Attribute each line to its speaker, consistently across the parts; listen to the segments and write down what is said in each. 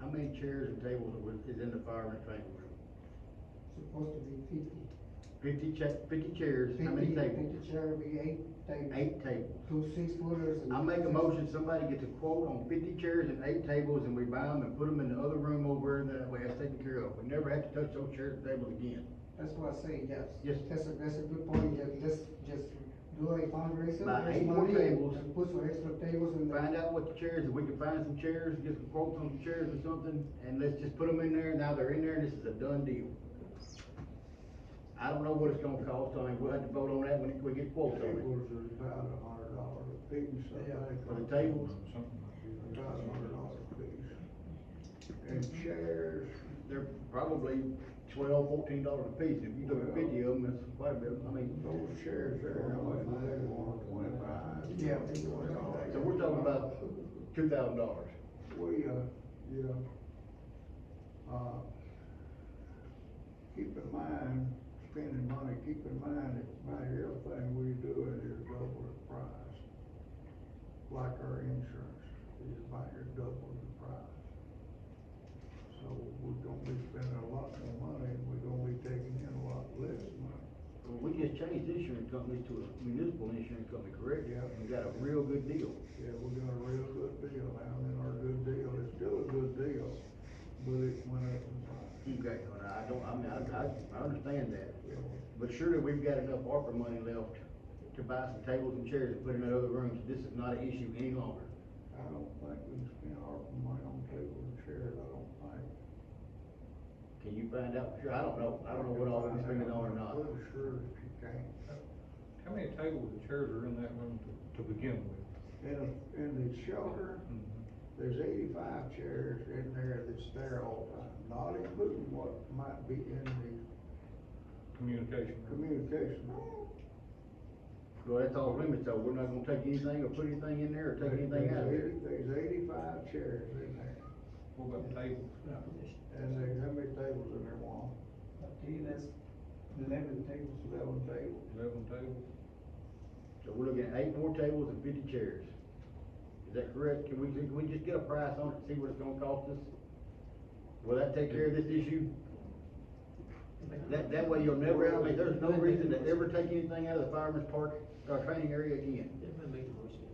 Speaker 1: How many chairs and tables was- is in the fire and training room?
Speaker 2: supposed to be fifty.
Speaker 1: Fifty cha- fifty chairs, how many
Speaker 2: 50
Speaker 1: tables?
Speaker 2: Fifty chair would be eight tables.
Speaker 1: Eight tables.
Speaker 2: Two six footers and.
Speaker 1: I make a
Speaker 2: six-
Speaker 1: motion, somebody gets a quote on fifty chairs and eight tables, and we buy them and put them in the other room over in that way, that's taken care of. We never have to touch those chairs and tables again.
Speaker 2: That's what I say, yes.
Speaker 1: Yes.
Speaker 2: That's a, that's a good point, yeah, let's just do a fundraiser.
Speaker 1: Buy
Speaker 2: raise
Speaker 1: eight more
Speaker 2: money, and-
Speaker 1: tables.
Speaker 2: And put some extra tables in there.
Speaker 1: Find out what the chairs, if we can find some chairs, get some quotes on some chairs or something, and let's just put them in there, now they're in there, and this is a done deal. I don't know what it's gonna cost, I mean, we'll have to vote on that when we get quotes on it.
Speaker 3: Tables is about a hundred dollar a piece, I
Speaker 2: Yeah.
Speaker 3: think.
Speaker 1: For the tables?
Speaker 3: About a hundred dollar a piece. And chairs,
Speaker 1: They're probably twelve, fourteen dollars a piece, if you took fifty of them, that's quite a bit, I mean,
Speaker 3: those chairs there, I like, they want twenty-five.
Speaker 2: Yeah.
Speaker 1: so we're talking about two thousand dollars.
Speaker 3: We, uh, yeah. Uh, keep in mind, spending money, keep in mind that about everything we do it is double the price. Like our insurance is about your double the price. So we're gonna be spending a lot more money and we're gonna be taking in a lot less money.
Speaker 1: We just changed insurance companies to a municipal insurance company, correct?
Speaker 3: Yeah.
Speaker 1: We got a real good deal.
Speaker 3: Yeah, we got a real good deal now and our good deal is still a good deal, but it went up in price.
Speaker 1: Okay, and I don't, I mean, I, I, I understand that,
Speaker 3: Yeah.
Speaker 1: but surely we've got enough ARPA money left to buy some tables and chairs and put in that other room, so this is not an issue any longer.
Speaker 3: I don't think we can spend our money on table and chairs, I don't think.
Speaker 1: Can you find out? for Sure, I don't know, I don't know what all we can spend it on or not.
Speaker 3: I'm pretty sure that you can.
Speaker 4: How many tables and chairs are in that room to, to begin with?
Speaker 3: In, in the shelter,
Speaker 4: Mm-hmm.
Speaker 3: there's eighty-five chairs in there that's there all the time, not including what might be in the
Speaker 4: Communication room?
Speaker 3: communication room.
Speaker 1: Well, that's all limits, though, we're not gonna take anything or put anything in there or take anything out of there.
Speaker 3: There's 80 There's eighty-five chairs in there,
Speaker 4: What about tables?
Speaker 3: and there's how many tables in there, Juan?
Speaker 2: Okay, that's eleven tables.
Speaker 3: Eleven tables.
Speaker 4: Eleven tables?
Speaker 1: So we're looking at eight more tables and fifty chairs. Is that correct? Can we, can we just get a price on it, and see what it's gonna cost us? Will that take care of this issue? That, that way you'll never, I mean, there's no reason to ever take anything out of the fireman's park, our training area again.
Speaker 5: Everybody make a motion.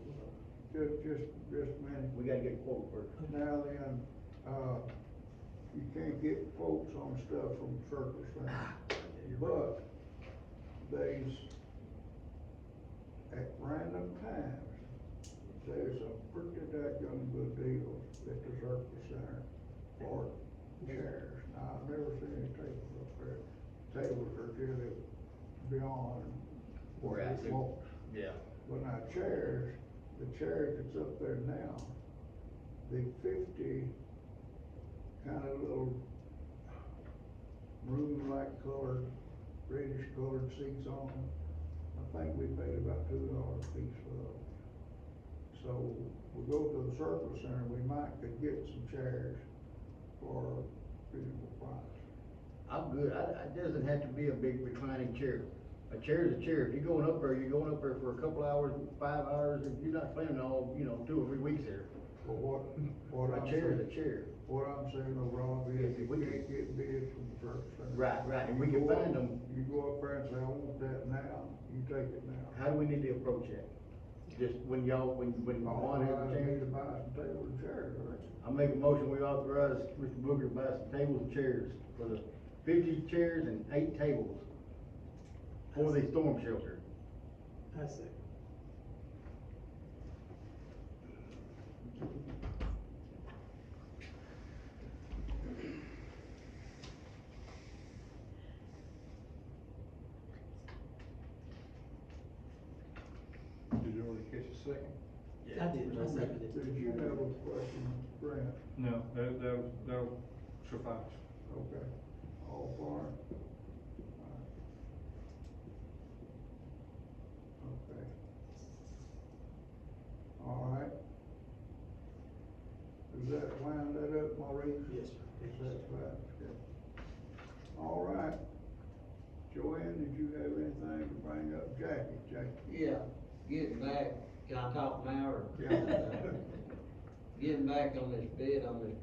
Speaker 3: Just, just, just a minute.
Speaker 1: We gotta get a quote first.
Speaker 3: Now then, uh, you can't get quotes on stuff from Circle
Speaker 1: Ah.
Speaker 3: Center, but there's, at random times, there's a pretty daggone good deal at the Circle Center for chairs. Now, I've never seen any tables up there, tables are really beyond. what
Speaker 1: We're at
Speaker 3: we
Speaker 1: it.
Speaker 3: want.
Speaker 1: Yeah.
Speaker 3: When our chairs, the chair that's up there now, the fifty kind of little room-like colored, reddish colored seats on them, I think we paid about two dollars a piece for those. So we go to the Circle Center, we might could get some chairs for a reasonable price.
Speaker 1: I'm good, I, it doesn't have to be a big reclining chair. A chair is a chair, if you're going up there, you're going up there for a couple hours, five hours, and you're not spending all, you know, two or three weeks there.
Speaker 3: But what, what I'm
Speaker 1: A chair is
Speaker 3: saying,
Speaker 1: a chair.
Speaker 3: what I'm saying overall is you
Speaker 1: If we-
Speaker 3: can't get bids from the Circle Center.
Speaker 1: Right, right, and we can find them,
Speaker 3: You go up there and say, I want that now, you take it now.
Speaker 1: how do we need to approach that? Just when y'all, when, when Juan has a
Speaker 3: I need
Speaker 1: chance,
Speaker 3: to buy some table and chairs, right?
Speaker 1: I make a motion, we authorize Mr. Booker to buy some tables and chairs for the fifty chairs and eight tables for the storm shelter.
Speaker 5: I second.
Speaker 4: Did you already catch a second?
Speaker 5: I did, I seconded it.
Speaker 3: Did you have a question, Brent?
Speaker 4: No, that, that'll, that'll suffice.
Speaker 3: Okay, all for it? Okay. All right. Does that wind that up, Maurice?
Speaker 5: Yes, sir.
Speaker 3: Is that right? Okay. All right. Joanne, did you have anything to bring up? Jackie, Jackie?
Speaker 6: Yeah, getting back, can I talk now or?
Speaker 3: Yeah.
Speaker 6: Getting back on this bid, on this